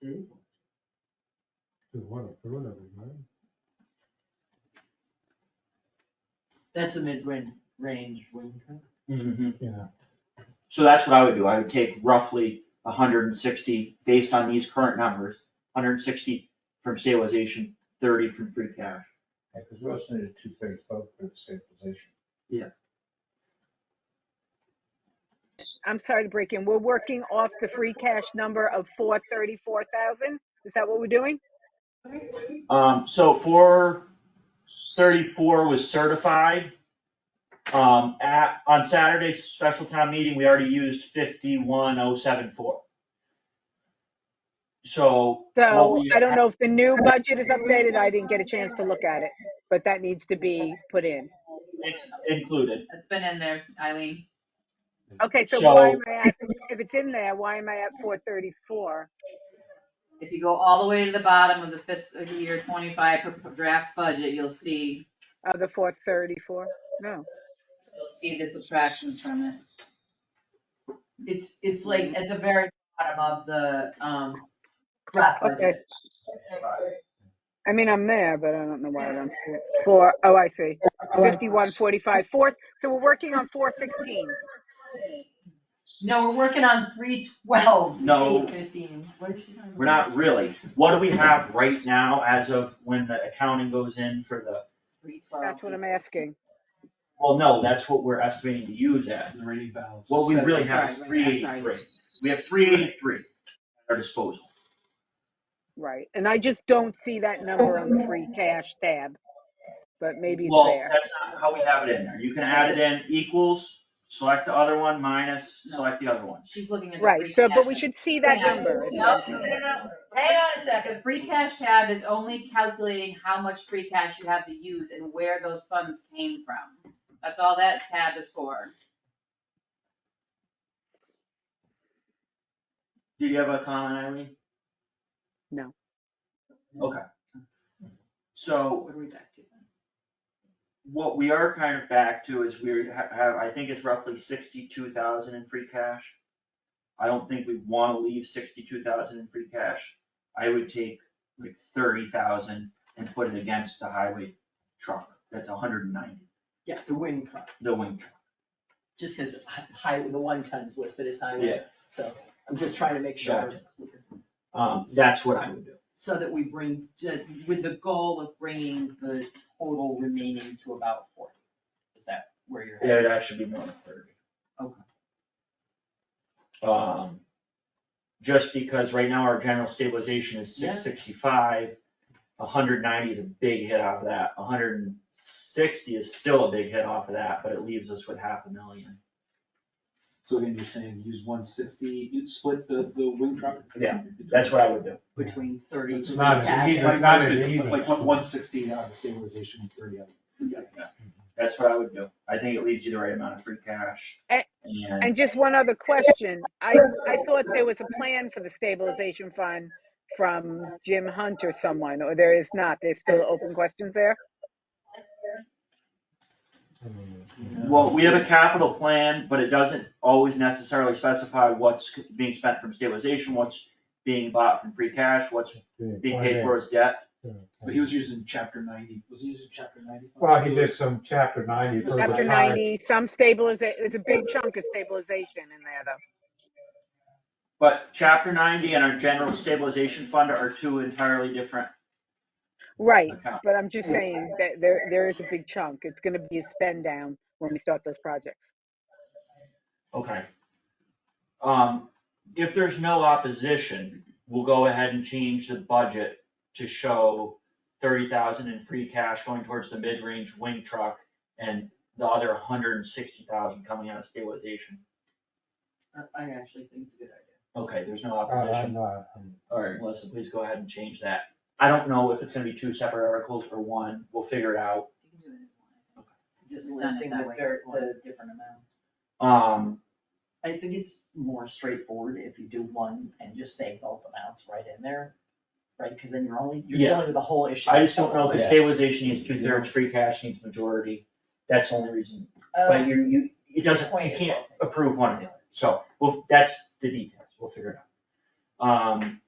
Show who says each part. Speaker 1: Beautiful. Just wanna throw it everywhere.
Speaker 2: That's a mid-range wind turbine.
Speaker 1: Yeah,
Speaker 3: Mm-hmm. So that's what I would do, I would take roughly hundred and sixty, based on these current numbers, hundred and sixty from stabilization, thirty from free cash.
Speaker 4: because we also needed two thirty-five for the stabilization.
Speaker 5: I'm sorry to break in. We're working off the free cash number of four thirty-four thousand. Is that what we're doing?
Speaker 3: Um, so four thirty-four was certified. Um, at, on Saturday's special town meeting, we already used fifty-one oh seven four. So. what
Speaker 5: So
Speaker 3: we-
Speaker 5: I don't know if the new budget is updated. I didn't get a chance to look at it, but that needs to be put in.
Speaker 3: It's included,
Speaker 6: It's been in there, Eileen.
Speaker 5: Okay, so
Speaker 3: So-
Speaker 5: why am I at, if it's in there, why am I at four thirty-four?
Speaker 6: If you go all the way to the bottom of the fiscal year twenty-five pro- draft budget, you'll see,
Speaker 5: Uh, the four thirty-four? No.
Speaker 6: you'll see the subtractions from it.
Speaker 2: It's, it's like at the very bottom of the, um, draft
Speaker 5: Okay.
Speaker 2: budget.
Speaker 5: I mean, I'm there, but I don't know why I don't see it. Four, oh, I see. Fifty-one, forty-five, four. So we're working on four sixteen.
Speaker 2: No, we're working on three twelve,
Speaker 3: No.
Speaker 2: eight fifteen.
Speaker 3: we're not really, what do we have right now as of when the accounting goes in for the,
Speaker 6: Three twelve.
Speaker 5: That's what I'm asking.
Speaker 3: well, no, that's what we're estimating to use at.
Speaker 4: The remaining balance.
Speaker 3: What we
Speaker 4: is
Speaker 3: really
Speaker 4: seven.
Speaker 3: have is
Speaker 6: Sorry,
Speaker 3: three
Speaker 6: right, I'm sorry.
Speaker 3: eighty-three, we have three eighty-three at our disposal.
Speaker 5: Right. And I just don't see that number on the free cash tab. But maybe it's
Speaker 3: Well,
Speaker 5: there.
Speaker 3: that's not how we have it in there, you can add it in equals, select the other one, minus, select the other one.
Speaker 6: She's looking at the free
Speaker 5: Right. So, but we
Speaker 6: cash.
Speaker 5: should see that number.
Speaker 6: No, no, no, no. Hang on a second, free cash tab is only calculating how much free cash you have to use and where those funds came from. That's all that tab is for.
Speaker 3: Did you have a comment, Eileen?
Speaker 5: No.
Speaker 3: Okay. So
Speaker 6: What are we back to then?
Speaker 3: what we are kind of back to is we ha- have, I think it's roughly sixty-two thousand in free cash. I don't think we wanna leave sixty-two thousand in free cash. I would take like thirty thousand and put it against the highway truck. That's hundred and ninety,
Speaker 2: Yeah, the wind cut,
Speaker 3: the wing truck.
Speaker 2: just because high, the one ton's listed as highway, so I'm just trying to make sure. we're clear.
Speaker 3: Um, that's what I would do.
Speaker 2: So that we bring, to- with the goal of bringing the total remaining to about forty. Is that where you're
Speaker 3: Yeah,
Speaker 2: at?
Speaker 3: It'd actually be more than thirty.
Speaker 2: Okay.
Speaker 3: Um, just because right now our general stabilization is
Speaker 2: Yeah.
Speaker 3: six sixty-five, hundred ninety is a big hit off of that, hundred and sixty is still a big hit off of that, but it leaves us with half a million.
Speaker 7: So again, you're saying use one sixty, you'd split the, the wing truck?
Speaker 3: Yeah, That's what I would do.
Speaker 2: Between thirty.
Speaker 1: It's not as
Speaker 2: cash.
Speaker 1: easy.
Speaker 7: Like,
Speaker 1: not
Speaker 7: not
Speaker 1: as easy.
Speaker 7: like one, one sixty out of stabilization, and thirty out.
Speaker 3: That's what I would do. I think it leaves you the right amount of free cash
Speaker 5: A-
Speaker 3: and
Speaker 5: And just one other question. I, I thought there was a plan for the stabilization fund from Jim Hunt or someone, or there is not. There's still open questions there?
Speaker 1: I mean,
Speaker 3: Well, we have a capital plan, but it doesn't always necessarily specify what's being spent from stabilization, what's being bought from free cash, what's
Speaker 1: yeah,
Speaker 3: being
Speaker 1: why
Speaker 3: paid for as debt.
Speaker 1: not?
Speaker 7: But he was using chapter ninety, was he using chapter ninety?
Speaker 1: Well, he did some chapter ninety for the
Speaker 5: Chapter
Speaker 1: time.
Speaker 5: ninety, some stabilization, it's a big chunk of stabilization in there though.
Speaker 3: But chapter ninety and our general stabilization fund are two entirely different
Speaker 5: Right,
Speaker 3: accounts.
Speaker 5: but I'm just saying that there, there is a big chunk. It's gonna be a spend down when we start those projects.
Speaker 3: Okay. Um, if there's no opposition, we'll go ahead and change the budget to show thirty thousand in free cash going towards the mid-range wing truck and the other hundred and sixty thousand coming out of stabilization.
Speaker 2: I I actually think it's a good idea.
Speaker 3: Okay, there's no
Speaker 1: Uh, I'm
Speaker 3: opposition.
Speaker 1: not- I'm-
Speaker 3: Alright, Melissa, please go ahead and change that. I don't know if it's gonna be two separate articles or one, we'll figure it out.
Speaker 6: You can do it as one.
Speaker 2: Just
Speaker 6: We've done it
Speaker 2: listing
Speaker 6: that
Speaker 2: the,
Speaker 6: way
Speaker 2: ver-
Speaker 6: before.
Speaker 2: the different amounts.
Speaker 3: Um,
Speaker 2: I think it's more straightforward if you do one and just say both amounts right in there, right? Cause then you're only, you're
Speaker 3: Yeah.
Speaker 2: dealing with the whole issue.
Speaker 3: I just don't know, cause
Speaker 2: Yeah.
Speaker 3: stabilization needs two thirds, free cash needs majority, that's the only reason. But
Speaker 6: Oh,
Speaker 2: Um,
Speaker 3: you, you, it doesn't,
Speaker 2: Point
Speaker 3: you
Speaker 2: is
Speaker 3: can't
Speaker 2: okay.
Speaker 3: approve one or the other, so, well, that's the details, we'll figure it out. Um,